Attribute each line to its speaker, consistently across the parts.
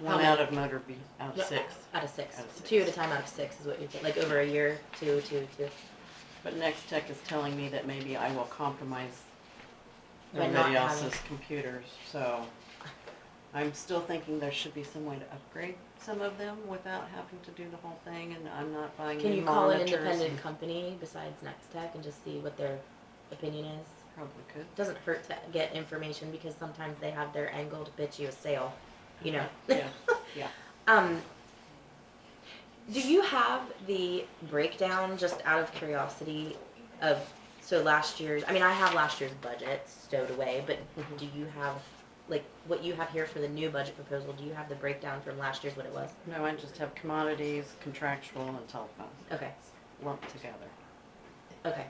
Speaker 1: One
Speaker 2: many?
Speaker 1: out of motor be out of
Speaker 2: Yeah,
Speaker 1: six.
Speaker 2: Out of six.
Speaker 1: Out of
Speaker 2: Two at
Speaker 1: six.
Speaker 2: a time out of six is what you think, like over a year, two, two, two.
Speaker 1: But Next Tech is telling me that maybe I will compromise
Speaker 2: By not
Speaker 1: everybody
Speaker 2: having-
Speaker 1: else's computers, so. I'm still thinking there should be some way to upgrade some of them without having to do the whole thing and I'm not buying
Speaker 2: Can
Speaker 1: new
Speaker 2: you call an
Speaker 1: monitors.
Speaker 2: independent
Speaker 1: and-
Speaker 2: company besides Next Tech and just see what their opinion is?
Speaker 1: Probably could.
Speaker 2: It doesn't hurt to get information because sometimes they have their angle to bitch you a sale, you know.
Speaker 1: Yeah, yeah.
Speaker 2: Um, do you have the breakdown, just out of curiosity, of so last year's? I mean, I have last year's budget stowed away, but
Speaker 1: Mhm.
Speaker 2: do you have like what you have here for the new budget proposal? Do you have the breakdown from last year's what it was?
Speaker 1: No, I just have commodities, contractual and telephone
Speaker 2: Okay,
Speaker 1: lumped together.
Speaker 2: okay,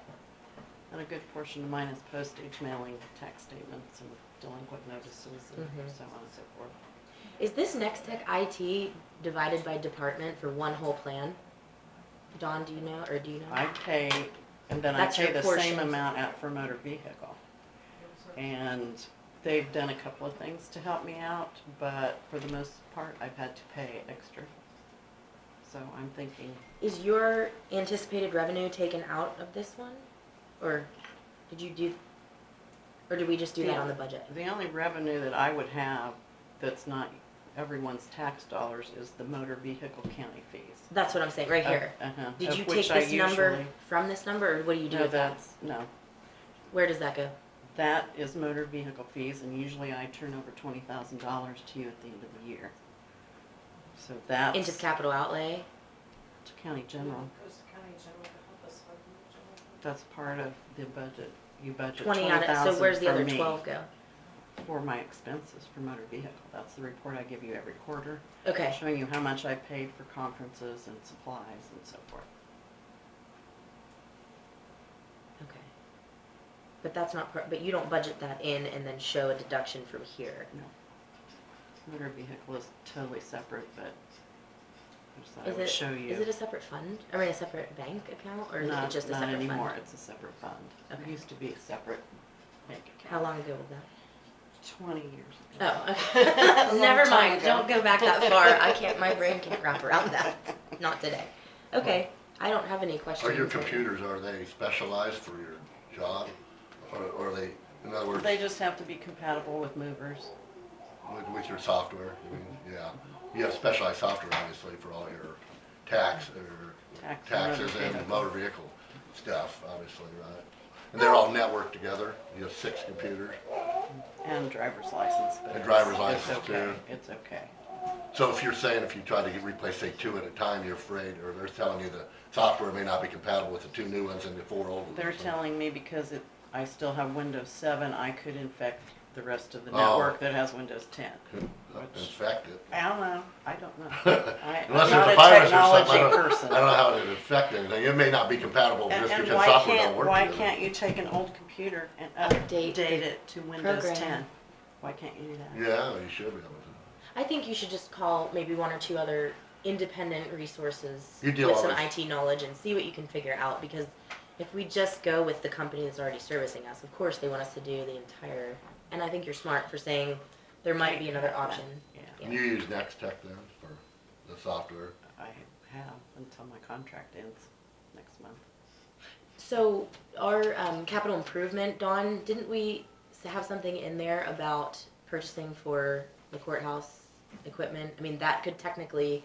Speaker 1: And a good portion of mine is postage, mailing, tax statements and delinquent notices and
Speaker 2: Mhm.
Speaker 1: so on and so forth.
Speaker 2: Is this Next Tech IT divided by department for one whole plan? Dawn, do you know, or do you know?
Speaker 1: I pay, and then I
Speaker 2: That's
Speaker 1: pay
Speaker 2: your
Speaker 1: the
Speaker 2: portion.
Speaker 1: same amount out for motor vehicle. And they've done a couple of things to help me out, but for the most part, I've had to pay extra. So I'm thinking,
Speaker 2: Is your anticipated revenue taken out of this one? Or did you do, or did we just do that on the budget?
Speaker 1: the only revenue that I would have that's not everyone's tax dollars is the motor vehicle county fees.
Speaker 2: That's what I'm saying, right here.
Speaker 1: Of- uh-huh,
Speaker 2: Did
Speaker 1: of
Speaker 2: you
Speaker 1: which
Speaker 2: take
Speaker 1: I
Speaker 2: this number
Speaker 1: usually-
Speaker 2: from this number, or what do you do
Speaker 1: No,
Speaker 2: with that?
Speaker 1: that's, no,
Speaker 2: Where does that go?
Speaker 1: that is motor vehicle fees, and usually I turn over twenty thousand dollars to you at the end of the year. So that's.
Speaker 2: Into capital outlay?
Speaker 1: To county general,
Speaker 3: Goes to county general to help us fund the general fund.
Speaker 1: that's part of the budget, you budget twenty
Speaker 2: Twenty out of, so
Speaker 1: thousand
Speaker 2: where's the
Speaker 1: for
Speaker 2: other
Speaker 1: me,
Speaker 2: twelve go?
Speaker 1: for my expenses for motor vehicle, that's the report I give you every quarter,
Speaker 2: Okay,
Speaker 1: showing you how much I paid for conferences and supplies and so forth.
Speaker 2: okay. But that's not part, but you don't budget that in and then show a deduction from here.
Speaker 1: Motor vehicle is totally separate, but I just thought I
Speaker 2: Is
Speaker 1: would
Speaker 2: it-
Speaker 1: show
Speaker 2: Is it
Speaker 1: you.
Speaker 2: a separate fund? I mean, a separate bank account, or is it
Speaker 1: Not,
Speaker 2: just a
Speaker 1: not
Speaker 2: separate
Speaker 1: anymore,
Speaker 2: fund?
Speaker 1: it's a separate fund, it
Speaker 2: Okay.
Speaker 1: used to be a separate bank account.
Speaker 2: How long ago was that?
Speaker 1: Twenty years ago.
Speaker 2: Oh, okay. never mind. Don't go back that far. I can't. My brain can't wrap around that. Not today. Okay. I don't have any questions.
Speaker 4: Are your computers, are they specialized for your job? Or or are they, in other words,
Speaker 1: They just have to be compatible with movers.
Speaker 4: with, with your software? I mean, yeah. You have specialized software, obviously, for all your tax, or
Speaker 1: Tax and motor
Speaker 4: taxes and
Speaker 1: vehicle.
Speaker 4: motor vehicle stuff, obviously, right? And they're all networked together? You have six computers?
Speaker 1: And driver's license, but
Speaker 4: And
Speaker 1: it's,
Speaker 4: driver's
Speaker 1: it's
Speaker 4: license,
Speaker 1: okay,
Speaker 4: too.
Speaker 1: it's okay.
Speaker 4: So if you're saying if you try to replace, say, two at a time, you're afraid, or they're telling you the software may not be compatible with the two new ones and the four old ones?
Speaker 1: They're
Speaker 4: so-
Speaker 1: telling me because it, I still have Windows seven, I could infect the rest of the
Speaker 4: Oh.
Speaker 1: network that has Windows ten.
Speaker 4: uh, Infect it.
Speaker 1: I don't know, I don't know. I- I'm not
Speaker 4: Unless there's
Speaker 1: a
Speaker 4: a virus or something, I
Speaker 1: technology
Speaker 4: don't,
Speaker 1: person.
Speaker 4: I don't know how it affect anything, it may not be compatible
Speaker 1: And,
Speaker 4: just
Speaker 1: and
Speaker 4: because
Speaker 1: why
Speaker 4: software don't
Speaker 1: can't,
Speaker 4: work
Speaker 1: why
Speaker 4: together.
Speaker 1: can't you take an old computer and
Speaker 2: Update
Speaker 1: update
Speaker 2: the
Speaker 1: it to Windows
Speaker 2: program.
Speaker 1: ten? Why can't you do that?
Speaker 4: Yeah, you should be able to.
Speaker 2: I think you should just call maybe one or two other independent resources
Speaker 4: You deal
Speaker 2: with
Speaker 4: all
Speaker 2: some
Speaker 4: this.
Speaker 2: IT knowledge and see what you can figure out. Because if we just go with the company that's already servicing us, of course they want us to do the entire. And I think you're smart for saying there might be another option.
Speaker 1: Yeah,
Speaker 2: Yeah.
Speaker 4: You use Next Tech then for the software?
Speaker 1: I have until my contract ends next month.
Speaker 2: So our um, capital improvement, Dawn, didn't we s- have something in there about purchasing for the courthouse equipment? I mean, that could technically,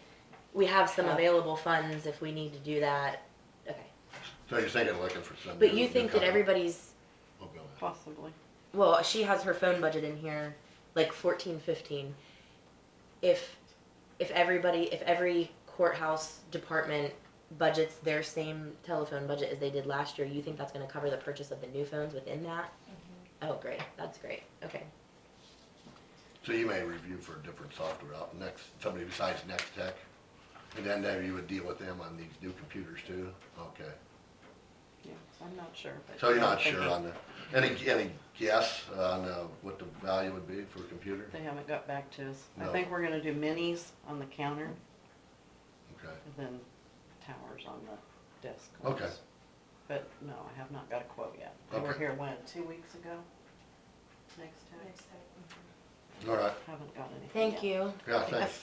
Speaker 2: we have some
Speaker 1: Yeah.
Speaker 2: available funds if we need to do that. Okay.
Speaker 4: So you're thinking of looking for some.
Speaker 2: But
Speaker 4: new-
Speaker 2: you
Speaker 4: new
Speaker 2: think that
Speaker 4: company.
Speaker 2: everybody's,
Speaker 4: We'll go with
Speaker 1: Possibly.
Speaker 2: well, she has her phone budget in here, like fourteen, fifteen. If, if everybody, if every courthouse department budgets their same telephone budget as they did last year, you think that's gonna cover the purchase of the new phones within that? Oh, great, that's great, okay.
Speaker 4: that. So you may review for different software out, next, somebody besides Next Tech? And then there you would deal with them on these new computers too? Okay.
Speaker 1: Yeah, I'm not sure. but
Speaker 4: So you're
Speaker 1: yeah, I'm
Speaker 4: not sure
Speaker 1: thinking-
Speaker 4: on the, any, any guess on uh, what the value would be for a computer?
Speaker 1: They haven't got back to us. I
Speaker 4: No.
Speaker 1: think we're gonna do minis on the counter
Speaker 4: Okay.
Speaker 1: and then towers on the desk.
Speaker 4: Okay.
Speaker 1: ones. But no, I have not got a quote yet. They were
Speaker 4: Okay.
Speaker 1: here, when, two weeks ago? Next time?
Speaker 3: Next time.
Speaker 4: All right,
Speaker 1: Haven't got anything yet.
Speaker 2: Thank you.
Speaker 4: yeah, thanks.